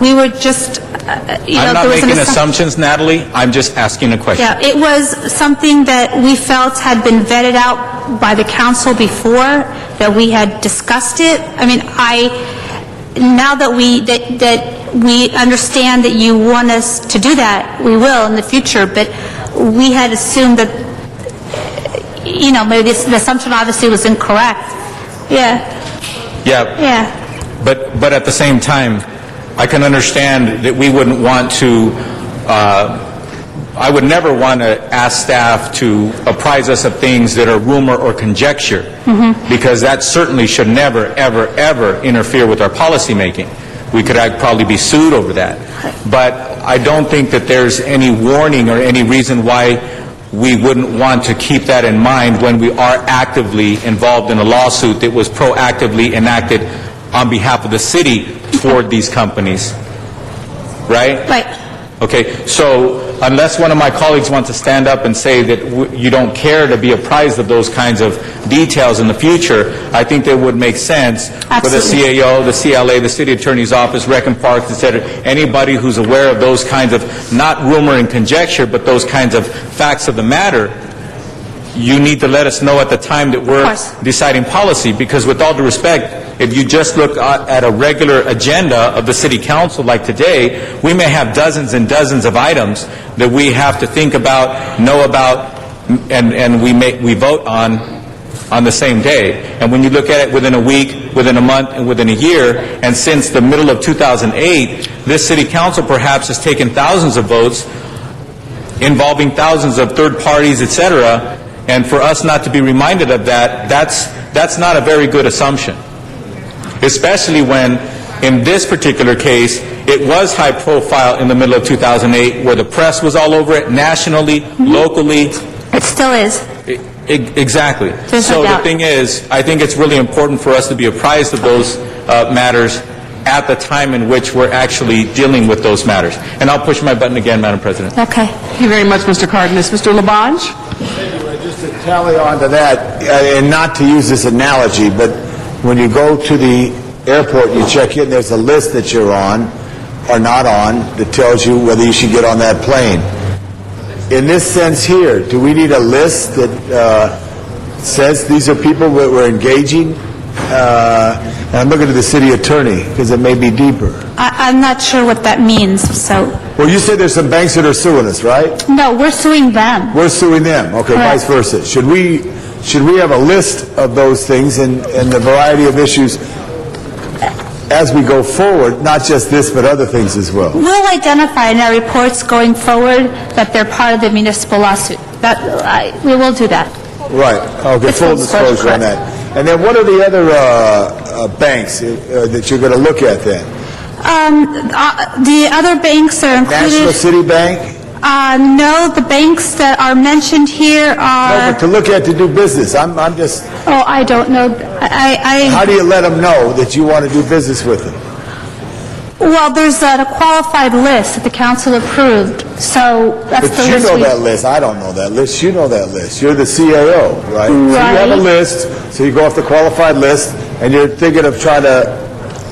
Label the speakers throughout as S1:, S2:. S1: We were just, uh, you know,
S2: I'm not
S1: there was an
S2: making
S1: assumption.
S2: assumptions, Natalie. I'm just asking a question.
S1: Yeah, it was something that we felt had been vetted out by the council before, that we had discussed it. I mean, I, now that we, that, that we understand that you want us to do that, we will in the future, but we had assumed that, uh, you know, maybe this- the assumption obviously was incorrect. Yeah,
S2: Yeah,
S1: yeah.
S2: but, but at the same time, I can understand that we wouldn't want to, uh, I would never want to ask staff to apprise us of things that are rumor or conjecture,
S1: Mm-hmm.
S2: because that certainly should never, ever, ever interfere with our policymaking. We could act- probably be sued over that. But I don't think that there's any warning or any reason why we wouldn't want to keep that in mind when we are actively involved in a lawsuit that was proactively enacted on behalf of the city toward these companies, right?
S1: Right.
S2: Okay, so unless one of my colleagues wants to stand up and say that w- you don't care to be apprised of those kinds of details in the future, I think that would make sense for the
S1: Absolutely.
S2: CA CAO, the CLA, the city attorney's office, rec and parks, et cetera, anybody who's aware of those kinds of, not rumor and conjecture, but those kinds of facts of the matter, you need to let us know at the time that we're
S1: course.
S2: deciding policy, because with all due respect, if you just look a- at a regular agenda of the city council like today, we may have dozens and dozens of items that we have to think about, know about, and, and we make, we vote on on the same day. And when you look at it within a week, within a month, and within a year, and since the middle of 2008, this city council perhaps has taken thousands of votes involving thousands of third parties, et cetera, and for us not to be reminded of that, that's, that's not a very good assumption. Especially when, in this particular case, it was high profile in the middle of 2008, where the press was all over it, nationally,
S1: Mm-hmm.
S2: locally,
S1: It still is.
S2: E- e- Exactly.
S1: There's no
S2: So the
S1: doubt.
S2: thing is, I think it's really important for us to be apprised of those uh, matters at the time in which we're actually dealing with those matters. And I'll push my button again, Madam President.
S1: Okay.
S3: Thank you very much, Mr. Cardenas. Mr. Labange?
S4: Anyway, Just to tally on to that, uh, and not to use this analogy, but when you go to the airport, you check in, there's a list that you're on or not on that tells you whether you should get on that plane. In this sense here, do we need a list that uh, says these are people that we're engaging? Uh, And I'm looking to the city attorney, because it may be deeper.
S1: I, I'm not sure what that means, so,
S4: Well, you said there's some banks that are suing us, right?
S1: no, we're suing them.
S4: We're suing them, okay,
S1: Correct.
S4: vice versa. Should we, should we have a list of those things and, and the variety of issues as we go forward, not just this, but other things as well?
S1: We'll identify in our reports going forward that they're part of the municipal lawsuit. That, I, we will do that.
S4: Right, okay,
S1: It's
S4: full
S1: full disclosure,
S4: disclosure
S1: correct.
S4: on that. And then what are the other uh, uh, banks uh, that you're going to look at then?
S1: Um, uh, the other banks are
S4: National
S1: included.
S4: City Bank?
S1: Uh, no, the banks that are mentioned here
S4: No, Oh, but
S1: are,
S4: to look at to do business, I'm, I'm just,
S1: oh, I don't know,
S4: how
S1: I, I,
S4: do you let them know that you want to do business with them?
S1: well, there's a qualified list that the council approved, so that's
S4: But
S1: the
S4: you
S1: list
S4: know
S1: we...
S4: that list, I don't know that list, you know that list, you're the CAO, right? So you have a
S1: Right.
S4: list, so you go off the qualified list, and you're thinking of trying to,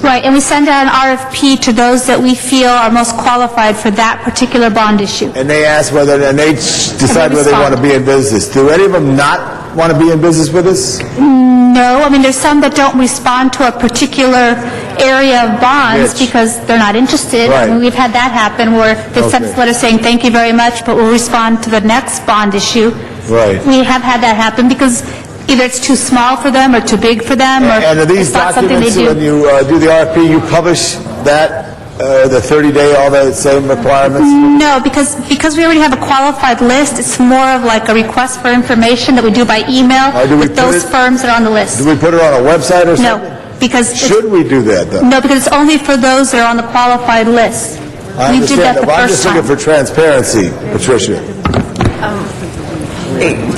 S1: Right, and we send out an RFP to those that we feel are most qualified for that particular bond issue.
S4: and they ask whether, and they decide whether they want to be in business. Do any of them not want to be in business with us?
S1: No, I mean, there's some that don't respond to a particular area of bonds
S4: Which?
S1: because they're not interested. I mean,
S4: Right.
S1: We've had that happen where they sent us
S4: Okay.
S1: letters saying, "Thank you very much, but we'll respond to the next bond issue."
S4: Right.
S1: We have had that happen because either it's too small for them or too big for them or
S4: And are these
S1: it's not something they
S4: documents,
S1: do.
S4: when you uh, do the RFP, you publish that, uh, the 30-day, all the same requirements?
S1: No, because, because we already have a qualified list, it's more of like a request for information that we do by email
S4: Uh, do we
S1: with those
S4: put it-
S1: firms that are on the
S4: Do
S1: list.
S4: we put it on a website or
S1: No,
S4: something?
S1: because, it's-
S4: Should we do that, though?
S1: no, because it's only for those that are on the qualified list.
S4: I
S1: We did
S4: understand
S1: that the
S4: but I'm
S1: first
S4: just
S1: time.
S4: looking for transparency, Patricia.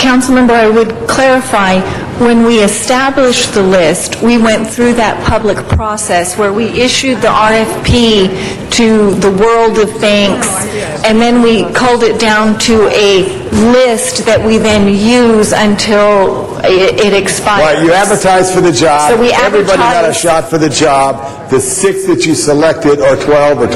S5: Councilmember, I would clarify, when we established the list, we went through that public process where we issued the RFP to the world of banks, and then we culled it down to a list that we then use until i- it expires.
S4: Right, you advertised for the job.
S5: So we
S4: Everybody got a
S5: advertised-
S4: shot for the job. The six that you selected, or 12 or